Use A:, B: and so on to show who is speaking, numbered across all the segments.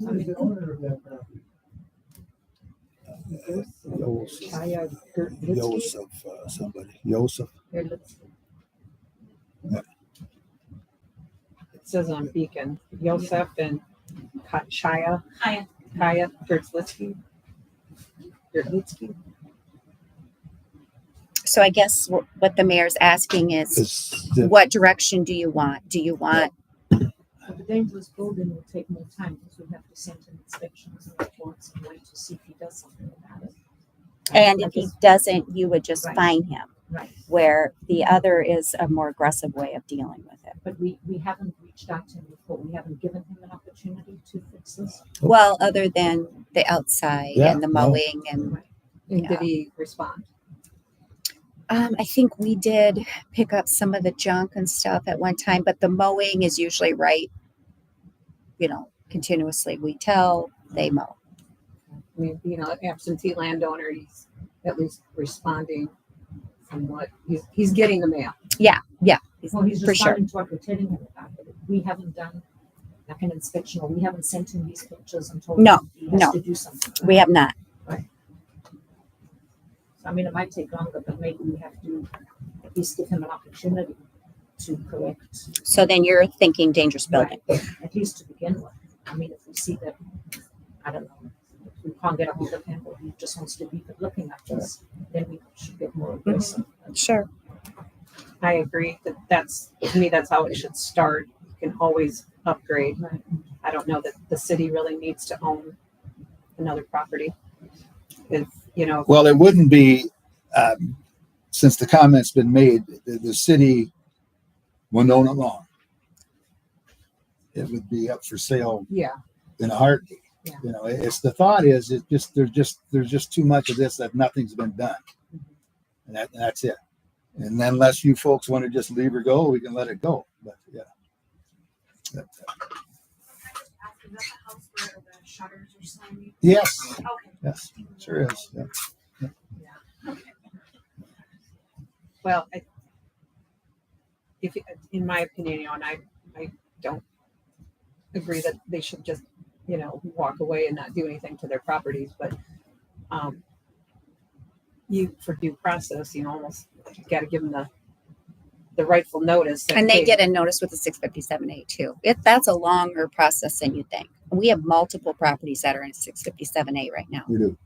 A: Who is the owner of that property?
B: Yosef,
C: Kaya Gertlitsky.
B: Yosef, uh, somebody, Yosef.
C: Gertlitsky.
B: Yeah.
C: It says on Beacon, Yosef and Ka- Shia,
D: Hi,
C: Kaya Gertlitsky. Gertlitsky.
E: So I guess wh- what the mayor's asking is,
B: Is the-
E: what direction do you want? Do you want,
D: but the dangerous building will take more time because we have to send in inspections and reports and wait to see if he does something about it.
E: and if
D: But
E: he
D: this-
E: doesn't, you would just
D: Right.
E: fine him.
D: Right,
E: Where the other is a more aggressive way of dealing with it.
D: but we, we haven't reached out to him before. We haven't given him an opportunity to fix this.
E: Well, other than the outside
B: Yeah,
E: and the
B: no.
E: mowing and,
C: Mm. And did
E: Yeah.
C: he respond?
E: um, I think we did pick up some of the junk and stuff at one time, but the mowing is usually right. You know, continuously, we tell, they mow.
C: I mean, you know, absentee landowner, he's at least responding from what, he's, he's getting the mail.
D: Well, he's
E: For sure.
D: responding to what we're telling him about, but we haven't done like an inspection or we haven't sent him these pictures and told him.
E: No,
D: he has
E: no.
D: To do something. about
E: We have not.
D: So, I mean, it might take longer, but maybe we have to at least give him an opportunity to correct,
E: So then you're thinking dangerous building.
D: at least to begin with. I mean, if we see that, I don't know, if we can't get a hold of him or he just wants to be looking at us, then we should get more
E: Mm-hmm.
D: aggressive.
E: Sure.
C: I agree that that's, to me, that's how it should start. You can always upgrade.
D: Right.
C: I don't know that the city really needs to own another property. If, you know,
B: Well, it wouldn't be, um, since the comment's been made, the, the city will own it long. It would be up for sale
C: yeah,
B: in a heartbeat.
C: Yeah.
B: You know, it's, the thought is, it just, there's just, there's just too much of this that nothing's been done. And that, that's it. And then unless you folks want to just leave her go, we can let it go, but yeah. uh, That-
F: Is that the house where the shutters are slamming?
B: Yes,
F: Okay.
B: yes, sure is, yeah.
C: well, I, if, in my opinion, you know, and I, I don't agree that they should just, you know, walk away and not do anything to their properties, but, um, you, for due process, you almost gotta give them the, the rightful notice. that,
E: And
C: hey,
E: they get a notice with a six fifty-seven A too. If that's a longer process than you think. We have multiple properties that are in six fifty-seven A right now.
B: We do.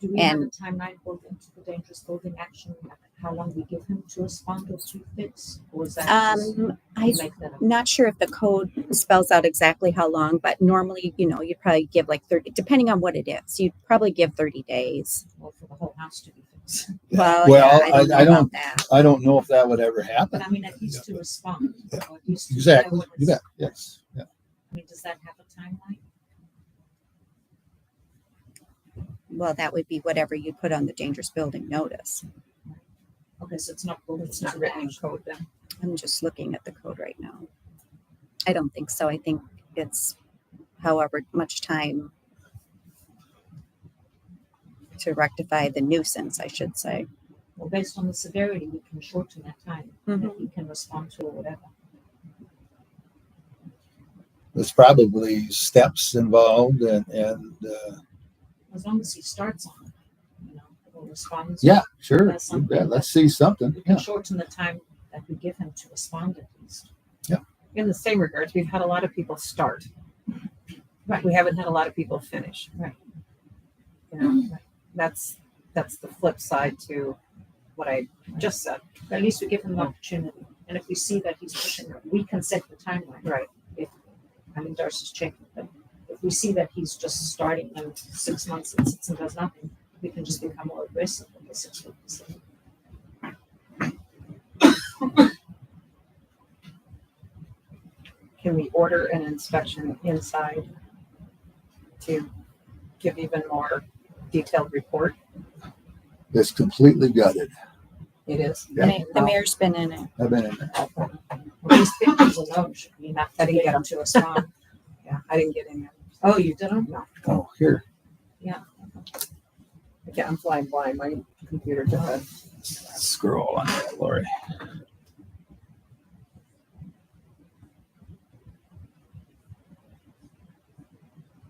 D: Do we have a
E: And-
D: timeline built into the dangerous building action, like how long we give him to respond or to fix, or is that just
E: Um, I,
D: make that up?
E: not sure if the code spells out exactly how long, but normally, you know, you'd probably give like thirty, depending on what it is, you'd probably give thirty days.
D: Or for the whole house to be fixed?
E: Well,
B: Well,
E: yeah, I don't
B: I- I
E: know
B: don't-
E: about that.
B: I don't know if that would ever
D: But
B: happen.
D: I mean, at least to respond, or at least to. know
B: Exactly,
D: what
B: you
D: it's-
B: bet, yes, yeah.
D: I mean, does that have a timeline?
E: Well, that would be whatever you put on the dangerous building notice.
D: Okay, so it's not built,
C: It's not written in code then.
E: I'm just looking at the code right now. I don't think so. I think it's however much time to rectify the nuisance, I should say.
D: Well, based on the severity, we can shorten that time, that
E: Mhm.
D: we can respond to or whatever.
B: There's probably steps involved and, and, uh,
D: As long as he starts on it, you know, or responds.
B: yeah, sure.
D: That's
B: you
D: something
B: bet. Let's see something,
D: We can
B: yeah.
D: shorten the time that we give him to respond at least.
E: Mm-hmm.
C: in the same regards, we've had a lot of people start.
D: Right.
C: We haven't had a lot of people finish.
D: Right.
C: You
E: Mm-hmm.
C: know, that's, that's the flip side to what I just said.
D: At least we give him the opportunity, and if we see that he's pushing it, we can set the timeline.
C: Right.
D: If, I mean, Darcy's checking, but if we see that he's just starting and six months and sits and does nothing, we can just become more aggressive in the six months.
C: Can we order an inspection inside to give even more detailed report?
B: It's completely gutted.
C: It is.
B: Yeah.
E: The mayor's been in it.
B: I've been in there.
D: Well, These pictures alone should be enough to
C: I didn't
D: get him to respond.
C: Yeah, I didn't get any.
D: Oh, you didn't?
C: No,
B: Oh, here,
C: I can't, I'm flying blind. My computer just,
B: scroll on that, Lori.